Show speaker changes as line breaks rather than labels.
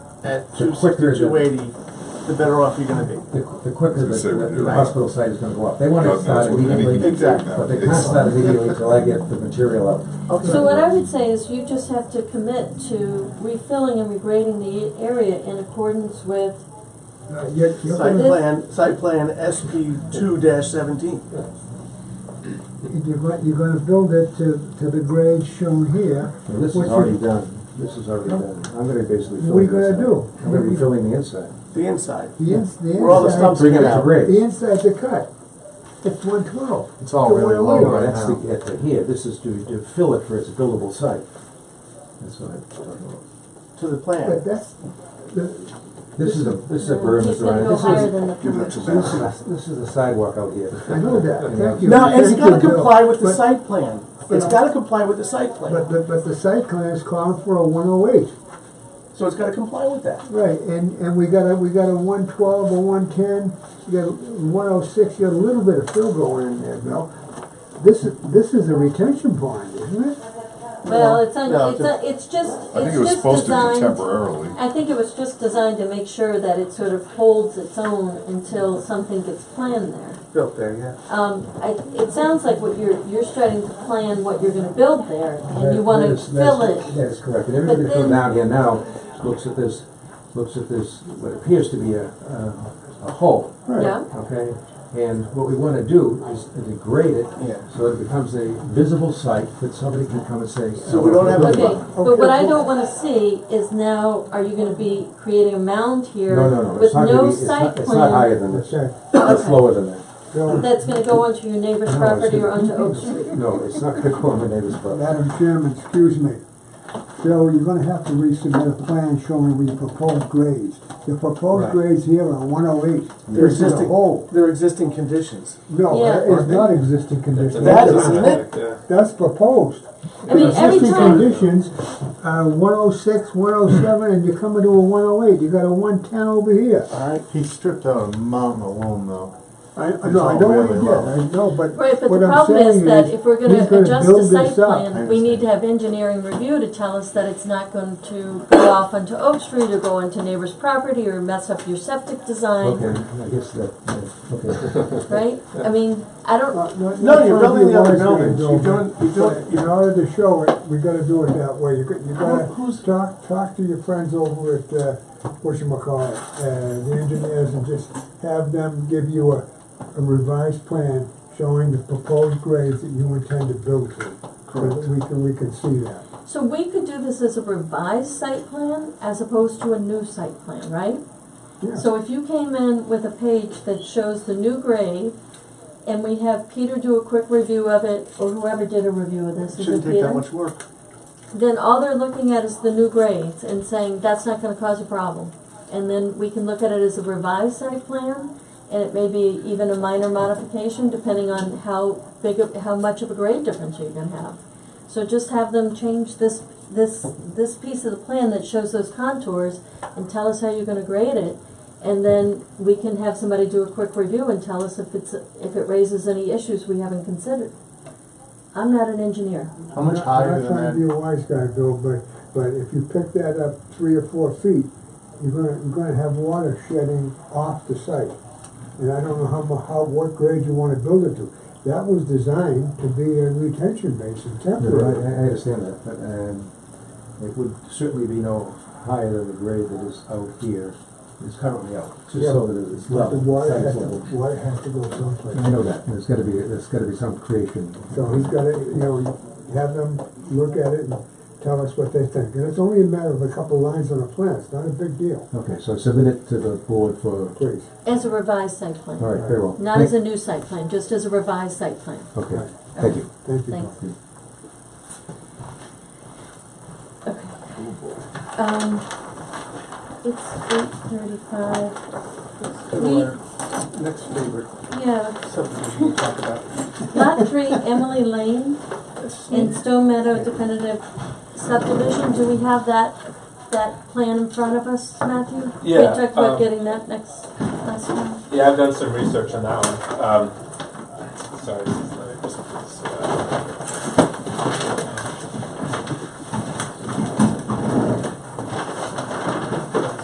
at
The
two
quicker
sixty,
the-
two eighty, the better off you're gonna be.
The the quicker
As I say,
the-
we
the
do.
the hospital site is gonna go up. They want
God
to start
knows what anything
immediately,
is now.
Exactly.
but they can't
It's-
start immediately until I get the material out.
So what I would say is you just have to commit to refilling and regrading the area in accordance with,
Uh, you're- you're
Site
gonna-
plan, site plan SP two seventeen.
If you're going, you're gonna build it to, to the grade shown here,
Well, This
What
is
you-
already done, this is already done, I'm gonna basically fill
What
the
are you gonna
inside.
do?
I'm gonna be filling the inside.
The inside.
the ins, the
Where all the
inside,
stumps
Bring it
come
to
out.
the
grade.
inside's a cut. It's one twelve. oh
It's all
So
really
where we
low
are
right
now.
now. That's the, at the here, this is to, to fill it for its buildable site. That's what I'm talking about.
to the
But
plan.
that's, the,
This is a, this
he's
is a berm
gonna
that's running.
go
This
higher
is,
than the
Give that to
commercial.
This
Matt.
is, this is the sidewalk out here.
I know that, thank you.
Now, it's
Thank
gotta
you, Bill.
comply with the
But-
site plan. It's gotta comply with the site
But,
plan.
but, but the site plan is calling for a one oh eight.
So it's gotta comply with that.
Right, and, and we got a, we got a one twelve, a one ten, you got one oh six, you got a little bit of fill going in there, Bill. This is, this is a retention pond, isn't it?
Well, it's, un-
No,
it's, a- it's just,
I think it
it's
was
just
supposed to be
designed,
temporarily.
I think it was just designed to make sure that it sort of holds its own until something gets planned there.
Built there, yeah.
Um, I, it sounds like what you're, you're starting to plan what you're gonna build there, and you
That-
wanna
that is- that's-
fill it.
That is correct, and everybody
But
that's going
then-
down here now looks at this, looks at this, what appears to be a, a a hole,
Yeah,
okay? And what we wanna do is degrade it,
Yeah.
so it becomes a visible site that somebody can come and say. "Oh,
So we don't have a-
okay, but what I
Okay.
don't wanna see is now, are you gonna be creating a mound here
No, no, no,
with
it's not gonna
no
be, it's not,
site
it's not higher
plan
than this,
Okay.
it's lower than that.
Bill,
that's gonna go onto your neighbor's
No, it's
property or onto
gonna-
Oak Street?
No, it's not gonna go on the neighbor's property.
Madam Chairman, excuse me. Bill, you're gonna have to resubmit a plan showing the proposed grades. The proposed
Right.
grades here are one oh eight.
They're
This is a
existing,
hole.
they're existing conditions.
No,
Yeah.
it's not existing conditions.
That is, isn't it?
That's proposed.
I mean, every
Existing
time,
conditions,
Uh, one oh six, one oh seven, and you're coming to a one oh eight, you got a one ten over here.
He stripped out a mountain alone though.
I, I-
It's
no, I
all
don't
really
want
low.
to, I know, but
right, but the
what I'm
problem is
saying
that if
is,
we're
he's
gonna
gonna
adjust the
build
site
this up.
plan, we need to have engineering review to tell us that it's not going to go off onto Oak Street or go onto neighbor's property or mess up your septic design,
Okay, I guess that, yeah, okay.
right? I mean, I don't,
No, you're building the other buildings, you're doing, you're doing,
But in order to show it, we gotta do it that way, you got- you
Who's-
gotta talk, talk to your friends over at, uh, whatchamacallit, uh, the engineers, and just have them give you a, a revised plan showing the proposed grades that you intend to build to. So that we can, we can see that.
so we could do this as a revised site plan as opposed to a new site plan, right?
Yeah.
So if you came in with a page that shows the new grade, and we have Peter do a quick review of it, or whoever did a review of this, is it
shouldn't take
Peter?
that much work.
then all they're looking at is the new grades and saying, that's not gonna cause a problem. And then we can look at it as a revised site plan, and it may be even a minor modification depending on how big, of- how much of a grade difference you're gonna have. So just have them change this, this, this piece of the plan that shows those contours and tell us how you're gonna grade it. And then we can have somebody do a quick review and tell us if it's, if it raises any issues we haven't considered. I'm not an engineer.
How much
I'm not trying to be a wise guy, Bill, but, but if you pick that up three or four feet, you're gonna, you're gonna have water shedding off the site. And I don't know how, mu- how, what grade you wanna build it to. That was designed to be a retention basin
No, I,
temporary.
I I understand that, but, um, it would certainly be no higher than the grade that is out here, is currently out, just so that it is
The
level,
water
site's
has to,
level.
water has to go someplace.
I know that, there's gotta be, there's gotta be some creation.
So he's gotta, you know, have them look at it and tell us what they think. And it's only a matter of a couple lines on a plan, it's not a big deal,
Okay, so submit it to the board for,
please.
As a revised site plan.
all right, very well.
Not as a new site plan, just as a revised site plan.
Okay, thank you.
Thank you. Bill.
Thanks. Okay. Um, it's eight thirty-five. We,
Next favorite
yeah,
subdivision we'll talk about.
lot three, Emily Lane in Stone Meadow definitive subdivision. Do we have that, that plan in front of us, Matthew? We
Yeah,
talked
um,
about getting that next, last time.
Yeah, I've done some research on that one. Um, sorry.
uh,